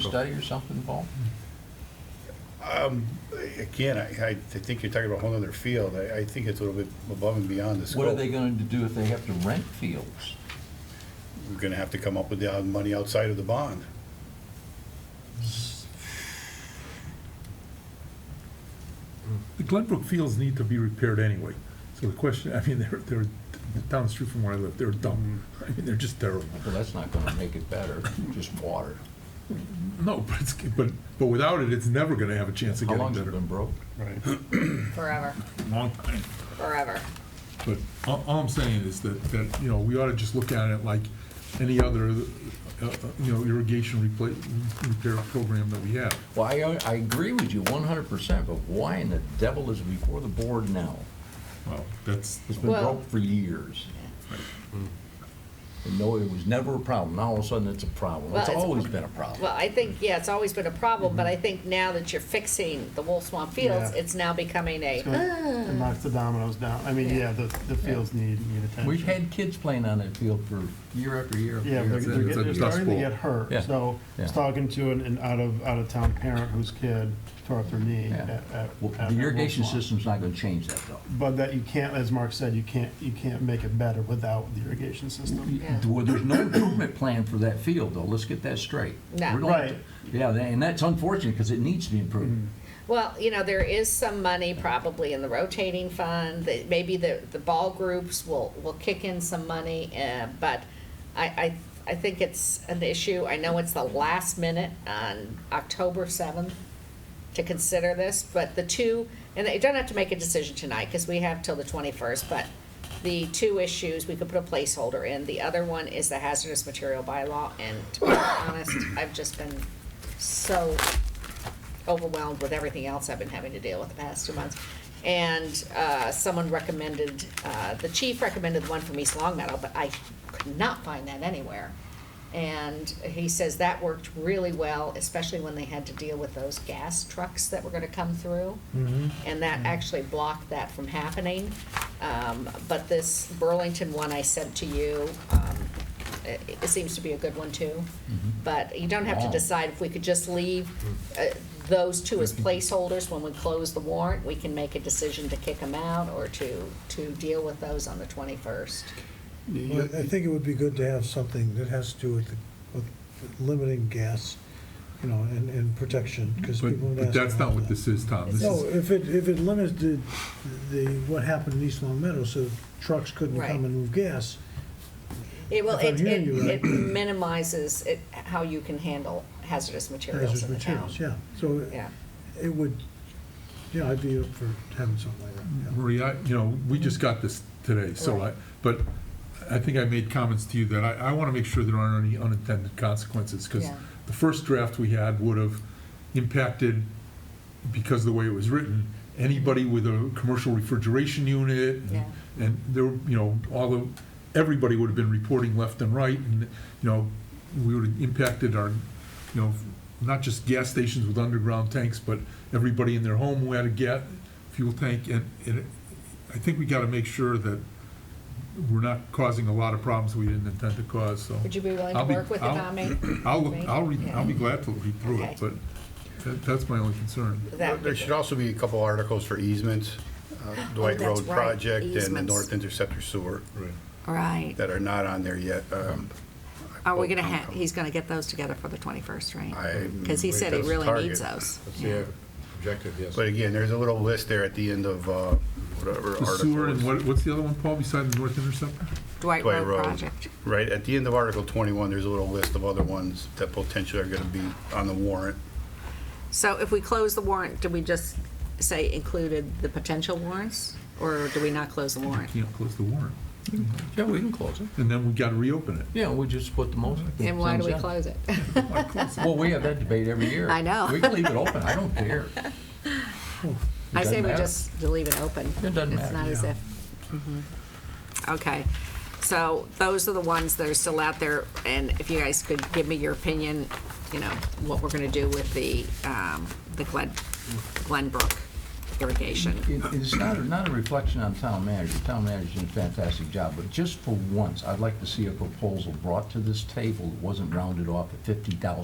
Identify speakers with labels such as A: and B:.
A: study or something, Paul?
B: Um, Again, I, I think you're talking about a whole other field. I, I think it's a little bit above and beyond the scope.
A: What are they going to do if they have to rent fields?
B: We're gonna have to come up with the uh, money outside of the bond.
C: The Glenbrook fields need to be repaired anyway. So the question, I mean, they're, they're down the street from where I live, they're dumb. I mean, they're just terrible.
A: Well, that's not going to make it better, just water.
C: No, but it's, but, but without it, it's never gonna have a chance of
A: How
C: getting
A: long's it
C: better.
A: been broke?
B: Right.
D: Forever,
C: Long time.
D: forever.
C: But all, all I'm saying is that, that, you know, we ought to just look at it like any other, uh, uh, you know, irrigation repla repair program that we have.
A: Well, I, I agree with you one hundred percent, but why in the devil is it before the board now?
C: Well, that's,
A: It's been
D: Well-
A: broke for years. And no, it was never a problem. Now all of a sudden it's a problem.
D: Well,
A: It's
D: it's-
A: always been a problem.
D: Well, I think, yeah, it's always been a problem, but I think now that you're fixing the Wolf Swamp Fields,
E: Yeah.
D: it's now becoming a,
E: It's gonna- It knocks the dominoes down. I mean,
D: Ah. Yeah.
E: yeah, the, the fields need, need attention.
A: We've had kids playing on that field for year after year. after
E: Yeah,
A: year after year.
E: they're, they're
C: it's a
E: getting- they're
C: dust
E: starting to
C: bowl.
E: get hurt.
A: Yeah,
E: So I was
A: yeah.
E: talking to an, an out of, out of town parent whose kid tore up their knee
A: Yeah.
E: at, at.
A: Well,
E: at-
A: The
E: at
A: irrigation
E: Wolf Lawn.
A: system's not gonna change that though.
E: But that you can't, as Mark said, you can't, you can't make it better without the irrigation system.
D: Yeah.
A: Well, there's no improvement plan for that field though. Let's get that straight.
D: No.
A: We're going
E: Right.
A: to- Yeah, that- and that's unfortunate because it needs to be improved.
D: well, you know, there is some money probably in the rotating fund, that maybe the, the ball groups will, will kick in some money, uh, but I, I, I think it's an issue, I know it's the last minute on October seventh to consider this, but the two, and you don't have to make a decision tonight, because we have till the twenty-first, but the two issues, we could put a placeholder in, the other one is the hazardous material bylaw, and to be honest, I've just been so overwhelmed with everything else I've been having to deal with the past two months. And uh, someone recommended, uh, the chief recommended one from East Long Meadow, but I could not find that anywhere. And he says that worked really well, especially when they had to deal with those gas trucks that were gonna come through. And that actually blocked that from happening. Um, But this Burlington one I sent to you, um, it it seems to be a good one too.
F: Mm-hmm.
D: But you don't have to
A: Wow.
D: decide decide if we could just leave uh, those two as
F: Mm-hmm.
D: placeholders when we close the warrant, we can make a decision to kick them out or to, to deal with those on the 21st.
F: Well, I think it would be good to have something that has to do with, the- with limiting gas, you know, and, and protection, because
C: but,
F: people. have
C: but
F: asked
C: that's not
F: about
C: what
F: that.
C: this is, Tom. This
F: No,
C: is,
F: if it, if it limited the, what happened in East Long Meadow, so trucks couldn't
D: Right.
F: come and move gas,
D: It will,
F: If I'm
D: it,
F: hearing
D: it
F: you right.
D: it minimizes it, how you can handle hazardous materials
F: hazardous
D: in the town.
F: materials, yeah. So
D: Yeah.
F: it would, yeah, I'd be up for having something like that, yeah.
C: Maria, you know, we just got this today, so I,
D: Right.
C: but I think I made comments to you that I, I want to make sure there aren't any unintended consequences, because
D: Yeah.
C: the first draft we had would have impacted, because of the way it was written, anybody with a commercial refrigeration unit,
F: Mhm.
C: and-
D: Yeah.
C: and there, were, you know, all the, everybody would have been reporting left and right, and, you know, we would have impacted our, you know, not just gas stations with underground tanks, but everybody in their home who had a gas, fuel tank, and, and I think we gotta make sure that we're not causing a lot of problems we didn't intend to cause, so.
D: Would you be willing to
C: I'll be-
D: work with the
C: I'll-
D: Tommy?
C: I'll, look- I'll read, I'll be
D: Yeah.
C: glad to read through
D: Okay.
C: it, but that, that's my only concern.
D: That would
B: There
D: be
B: should
D: good.
B: also be a couple articles for easements, uh, Dwight
D: that's
B: Road
D: right,
B: Project and the
D: easements.
B: North Interceptor Sewer
D: Right.
B: that are not on there yet. Um,
D: Are we gonna have, he's gonna get those together for the 21st, right?
B: I-
D: Because he said he
B: that's
D: really
B: target.
D: needs those.
G: That's the objective, yes.
B: But again, there's a little list there at the end of uh, whatever
C: The
B: article.
C: sewer
B: it's-
C: and what, what's the other one, Paul, beside the North Interceptor?
D: Dwight
B: Dwight
D: Road
B: Road.
D: project.
B: Right, at the end of Article 21, there's a little list of other ones that potentially are going to be on the warrant.
D: So if we close the warrant, do we just say included the potential warrants, or do we not close the warrant?
C: Can't close the warrant,
A: Yeah, we can close it.
C: and then we gotta reopen it.
A: Yeah, we just put the motion.
D: And why do we
A: Thumbs up.
D: close it?
A: Well, we have that debate every year.
D: I know.
A: We can leave it open, I don't care. It
D: I say
A: doesn't
D: we
A: matter.
D: just leave it open.
A: It doesn't
D: It's
A: matter,
D: not as
A: yeah.
D: if, mhm. okay. So those are the ones that are still out there, and if you guys could give me your opinion, you know, what we're gonna do with the, um, the Glen, Glenbrook irrigation.
A: It- It's not, a- not a reflection on town manager, town manager's doing a fantastic job, but just for once, I'd like to see a proposal brought to this table that wasn't rounded off at fifty thousand